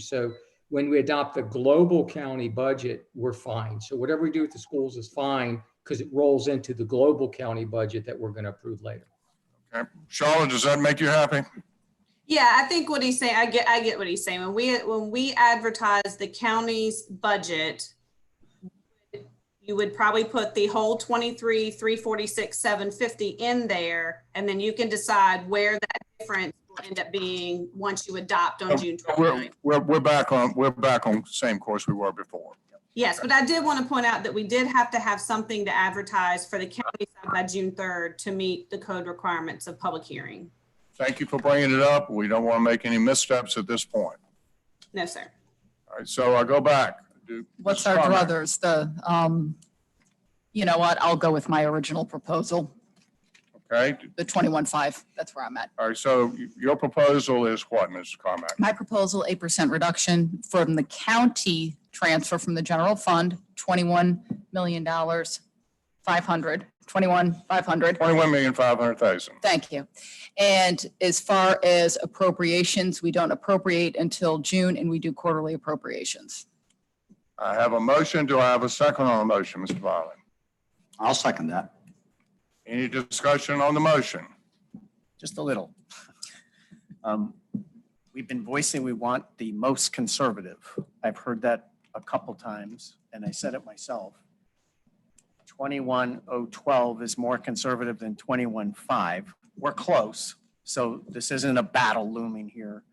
So when we adopt the global county budget, we're fine. So whatever we do with the schools is fine because it rolls into the global county budget that we're going to approve later. Okay. Charlotte, does that make you happy? Yeah, I think what he's saying, I get, I get what he's saying. When we, when we advertise the county's budget, you would probably put the whole twenty-three, three forty-six, seven fifty in there, and then you can decide where that difference will end up being once you adopt on June We're, 29th. we're, we're back on, we're back on same course we were before. Yes, but I did want to point out that we did have to have something to advertise for the county side by June third to meet the code requirements of public hearing. Thank you for bringing it up. We don't want to make any missteps at this point. No, sir. All right, so I go back. Do- What's Mrs. our Conrad. druthers? The, um, you know what? I'll go with my original proposal, Okay, the twenty-one five. That's where I'm at. all right, so y- your proposal is what, Mrs. Carmack? My proposal, eight percent reduction from the county transfer from the general fund, twenty-one million dollars, five hundred, twenty-one, five hundred. Twenty-one million, five hundred thousand. Thank you. And as far as appropriations, we don't appropriate until June and we do quarterly appropriations. I have a motion. Do I have a second on the motion, Mr. Violet? I'll second that, Any discussion on the motion? just a little. Um, We've been voicing we want the most conservative. I've heard that a couple times, and I said it myself. 21012 is more conservative than 215. We're close, so this isn't a battle looming here.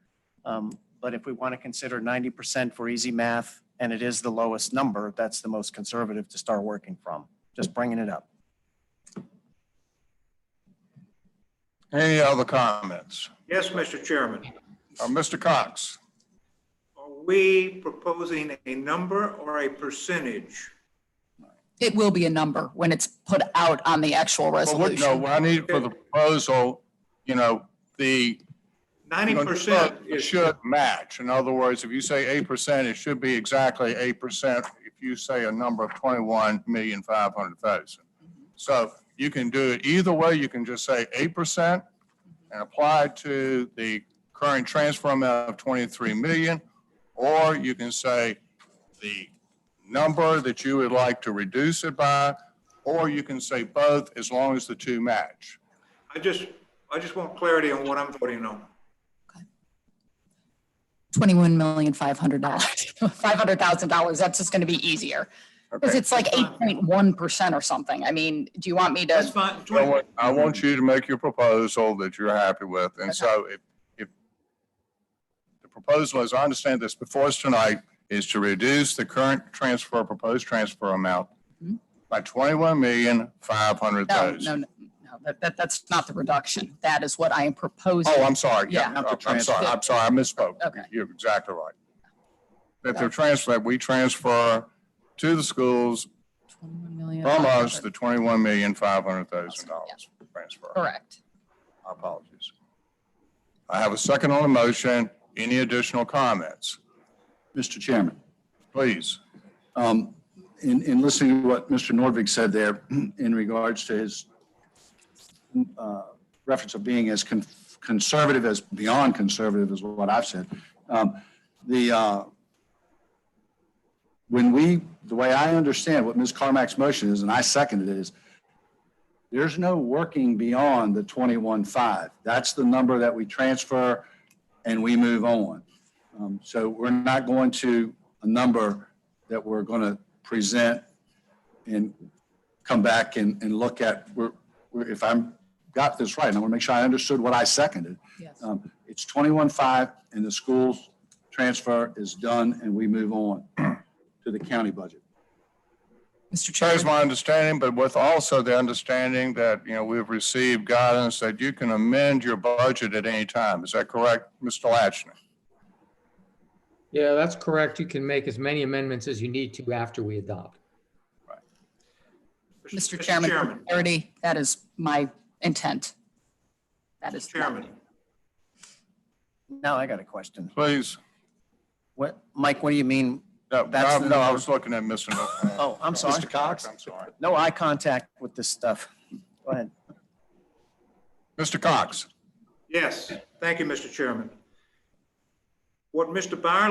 Um, But if we want to consider 90% for easy math, and it is the lowest number, that's the most conservative to start working from. Just bringing it up. Any other comments? Yes, Mr. Chairman. Uh, Mr. Cox? Are we proposing a number or a percentage? It will be a number when it's put out on the actual Well, what- resolution. No, I need for the proposal, you know, the Ninety percent It is, should match. In other words, if you say eight percent, it should be exactly eight percent if you say a number of twenty-one million five hundred thousand. So you can do it either way. You can just say eight percent and apply it to the current transfer amount of twenty-three million. Or you can say the number that you would like to reduce it by, or you can say both as long as the two match. I just, I just want clarity on what I'm voting on. Twenty-one million, five hundred dollars, five hundred thousand dollars. That's just going to be easier. Because Okay. it's like eight point one percent or something. I mean, do you want me That's to, fine. I want, I want you to make your proposal that you're happy with, and so if, if the proposal, as I understand this before us tonight, is to reduce the current transfer, proposed transfer amount Mhm. by twenty-one million, five hundred no, no, thousand. no, no, that, that, that's not the reduction. That is what I am proposing. Oh, I'm sorry, yeah, Yeah. I'm I'm sorry, I'm sorry, I misspoke. Okay. You're exactly right. That they're transferred, we transfer to the schools $21 million. from us the twenty-one million, five hundred thousand dollars transfer. Correct. My apologies. I have a second on the motion. Any additional comments? Mr. Chairman, Please. um, in, in listening to what Mr. Norvig said there in regards to his uh, reference of being as con- conservative as, beyond conservative is what I've said. Um, The, uh, when we, the way I understand what Ms. Carmack's motion is, and I seconded it, is there's no working beyond the 21.5. That's the number that we transfer and we move on. Um, So we're not going to a number that we're going to present and come back and, and look at, we're, we're- if I'm, got this right, and I want to make sure I understood what I seconded. Yes. Um, It's 21.5 and the school's transfer is done and we move on to the county budget. Mr. That is Chairman, my understanding, but with also the understanding that, you know, we've received guidance that you can amend your budget at any time. Is that correct, Mr. Lachlan? Yeah, that's correct. You can make as many amendments as you need to after we adopt. Mr. Chairman, for Chairman, clarity, that is my intent. That is. Mr. Chairman, Now I got a question. Please. What, Mike, what do you mean? No, That's no, the no, I number. was looking at Mr. Nor- Oh, I'm sorry. Mr. Cox, I'm sorry. No eye contact with this stuff. Go ahead. Mr. Cox. yes, thank you, Mr. Chairman. What Mr. Byerly